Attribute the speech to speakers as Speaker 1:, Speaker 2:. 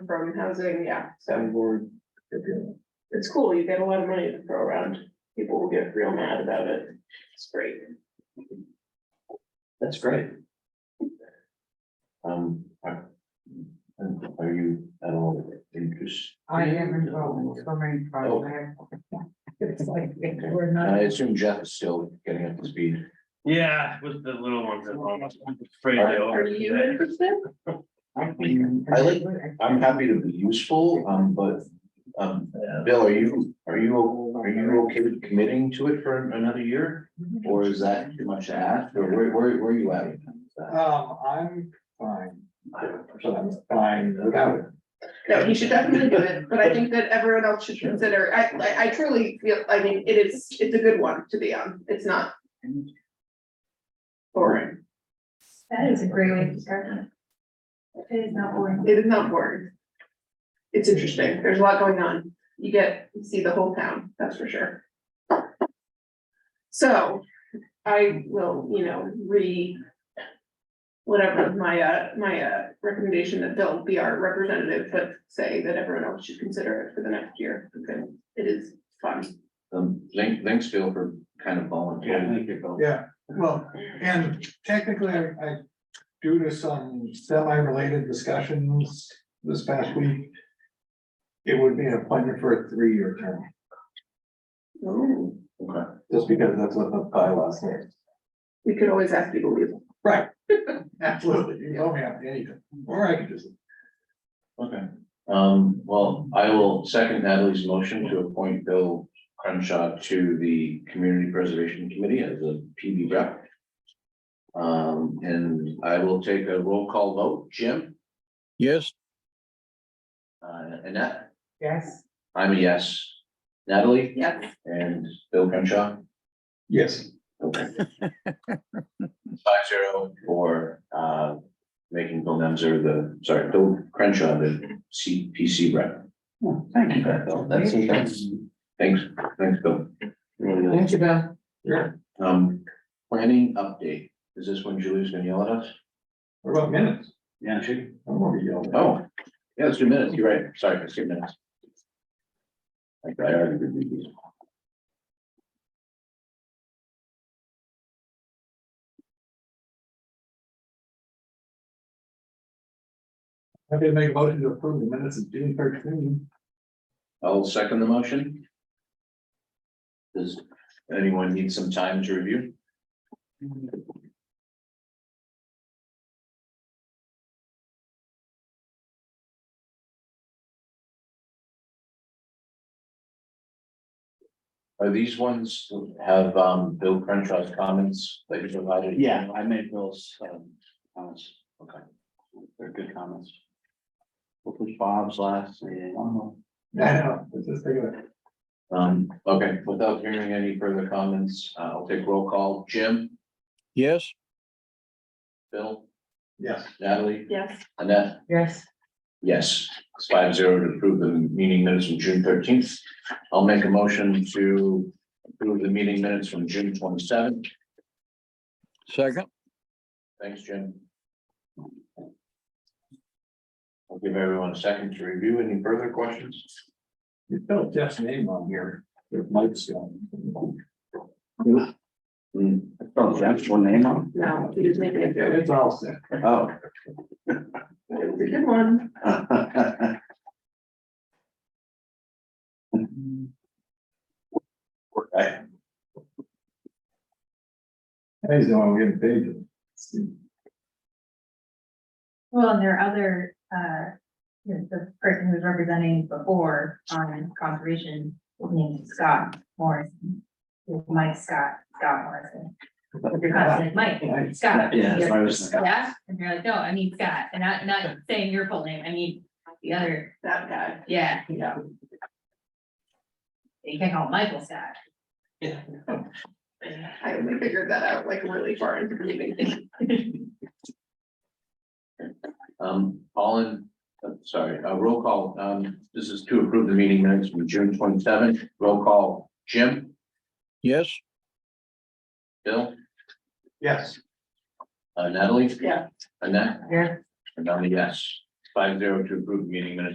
Speaker 1: from housing, yeah, so
Speaker 2: I'm bored. They're doing
Speaker 1: it's cool, you get a lot of money to throw around. People will get real mad about it, it's great.
Speaker 2: it. That's great. Um, are, and are you at all interested?
Speaker 3: I am involved in so many projects. It's like, we're
Speaker 2: I
Speaker 3: not.
Speaker 2: assume Jeff is still getting up to speed.
Speaker 4: Yeah, with the little ones at home, I'm afraid they
Speaker 1: Are you interested?
Speaker 2: I like, I'm happy to be useful, um, but, um, Bill, are you, are you, are you okay with committing to it for another year? Or is that too much to ask, or where, where, where are you at? with that?
Speaker 3: Um, I'm fine, I'm fine without it.
Speaker 1: No, he should definitely do it, but I think that everyone else should consider, I, I, I truly feel, I mean, it is, it's a good one to be on, it's not. Boring,
Speaker 5: That is a great way to start. It is not boring.
Speaker 1: it is not boring. It's interesting, there's a lot going on, you get, you see the whole town, that's for sure. So, I will, you know, re. Whatever my, uh, my, uh, recommendation that Bill be our representative, but say that everyone else should consider it for the next year, because it is fun.
Speaker 2: Um, thank- thanks, Bill, for kind of volunteering.
Speaker 3: Yeah, well, and technically, I, I, due to some semi-related discussions this past week. It would be an appointment for a three-year term,
Speaker 1: Oh,
Speaker 2: Okay.
Speaker 3: just because that's what the bylaws say.
Speaker 1: we could always ask people, to leave.
Speaker 3: Right. Absolutely, you don't have anything, or I could just
Speaker 2: Okay, um, well, I will second Natalie's motion to appoint Bill Crenshaw to the Community Preservation Committee as a PB rep. Um, and I will take a roll call vote. Jim?
Speaker 6: Yes,
Speaker 2: Uh, Annette?
Speaker 3: Yes.
Speaker 2: I'm a yes. Natalie
Speaker 1: yes.
Speaker 2: and Bill Crenshaw?
Speaker 3: Yes.
Speaker 2: Okay. Five zero for, uh, making Bill Nemser the, sorry, Bill Crenshaw the CPC rep. Oh, Thank you, Bill. That's, that's, thanks, thanks, Bill.
Speaker 3: you, Ben. Sure,
Speaker 2: Um, planning update. Is this when Julie's gonna yell at us?
Speaker 3: what about minutes?
Speaker 2: Yeah. She,
Speaker 3: I'm gonna be yelling.
Speaker 2: oh, yeah, it's two minutes. You're right. Sorry, it's two minutes. Like, I already reviewed these.
Speaker 3: I'm gonna make a motion to approve the minutes of June thirteen.
Speaker 2: I'll second the motion. Does anyone need some time to review? Are these ones have um Bill Crenshaw's comments that you provided?
Speaker 7: Yeah, I made Bill's um, comments. Okay. They're good comments. Hopefully Bob's last, meeting, I don't know.
Speaker 3: I know, it's just thinking of.
Speaker 2: Um, okay, without hearing any further comments, uh, I'll take roll call. Jim,
Speaker 6: yes.
Speaker 2: Bill,
Speaker 3: Yes.
Speaker 2: Natalie,
Speaker 1: Yes.
Speaker 2: Annette?
Speaker 3: Yes.
Speaker 2: Yes, it's five zero to approve the meeting minutes from June thirteenth. I'll make a motion to approve the meeting minutes from June twenty seventh.
Speaker 6: Second,
Speaker 2: Thanks, Jim. I'll give everyone a second to review. Any further questions?
Speaker 3: You spelled Jeff's name on here, It might spell.
Speaker 2: Hmm,
Speaker 7: Oh, that's one name on.
Speaker 1: No, he was making a joke.
Speaker 3: It's all set.
Speaker 7: Oh.
Speaker 1: It was a good one.
Speaker 2: Okay.
Speaker 3: He's the one getting paid.
Speaker 5: Well, and there are other, uh, you know, the person who's representing before on conservation named Scott Morrison. Mike Scott, Scott Morrison. Your cousin, Mike, Scott.
Speaker 7: Yeah, that's what I was thinking.
Speaker 5: Yeah, and you're like, no, I mean Scott, and not, not saying your full name, I mean the other,
Speaker 1: That guy.
Speaker 5: yeah,
Speaker 1: Yeah.
Speaker 5: you can't call him Michael Scott.
Speaker 1: I only figured that out like really far into the meeting.
Speaker 2: Um, all in, uh, sorry, uh, roll call, um, this is to approve the meeting minutes from June twenty seventh, roll call, Jim,
Speaker 6: yes.
Speaker 2: Bill,
Speaker 3: Yes.
Speaker 2: uh, Natalie,
Speaker 1: Yeah.
Speaker 2: Annette,
Speaker 5: Here.
Speaker 2: and I'm a yes. Five zero to approve the meeting minutes